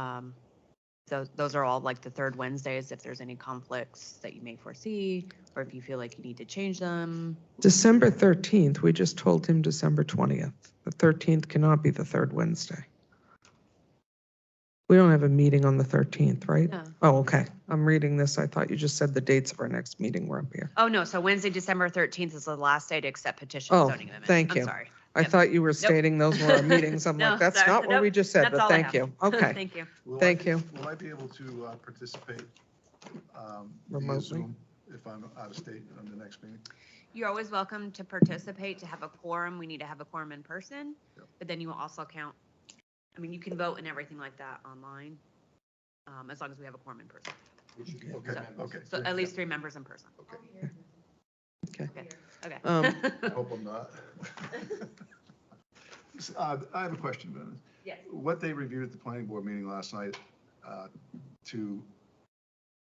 Um, So those are all like the third Wednesdays, if there's any conflicts that you may foresee, or if you feel like you need to change them. December 13th, we just told him December 20th. The 13th cannot be the third Wednesday. We don't have a meeting on the 13th, right? No. Oh, okay. I'm reading this. I thought you just said the dates of our next meeting were up here. Oh, no, so Wednesday, December 13th is the last day to accept petition Oh, zoning amendments. thank you. I'm sorry. I Yep. thought you were stating those were our meetings. I'm No, like, that's sorry. not what we Nope. just said, That's but all I thank have. you. Okay. Thank you. Will I Thank be- you. Will I be able to uh, participate um, via Remotely. Zoom if I'm out of state on the next meeting? You're always welcome to participate, to have a quorum. We need to have a quorum in person, Yep. but then you will also count. I mean, you can vote and everything like that online, um, as long as we have a quorum in person. Okay, okay. So at least three members in person. Okay. Okay. Okay. Um, I hope I'm not. S- uh, I have a question, Ben. Yes. What they reviewed at the planning board meeting last night uh, to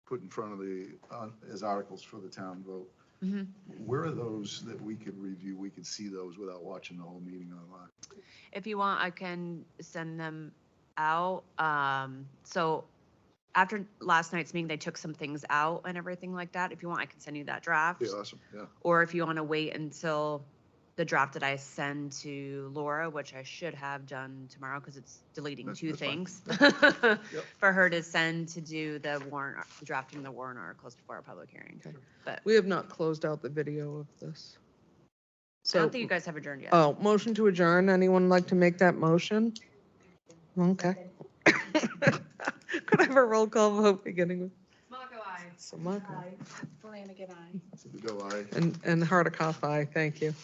put in front of the, uh, as articles for the town vote, Mhm. where are those that we could review, we could see those without watching the whole meeting online? If you want, I can send them out. Um, so after last night's meeting, they took some things out and everything like that. If you want, I can send you that draft. Be awesome, yeah. Or if you want to wait until the draft that I send to Laura, which I should have done tomorrow because it's deleting That's- two that's fine. things. For her to send to do the warrant, drafting the warrant articles before our public hearing. Okay. But We have not closed out the video of this. I So, don't think you guys have adjourned yet. oh, motion to adjourn. Anyone like to make that motion? Okay. Could I have a roll call vote beginning with Samaka? Flanagan, aye. So we go, aye. And, and Hardikoff, aye. Thank you.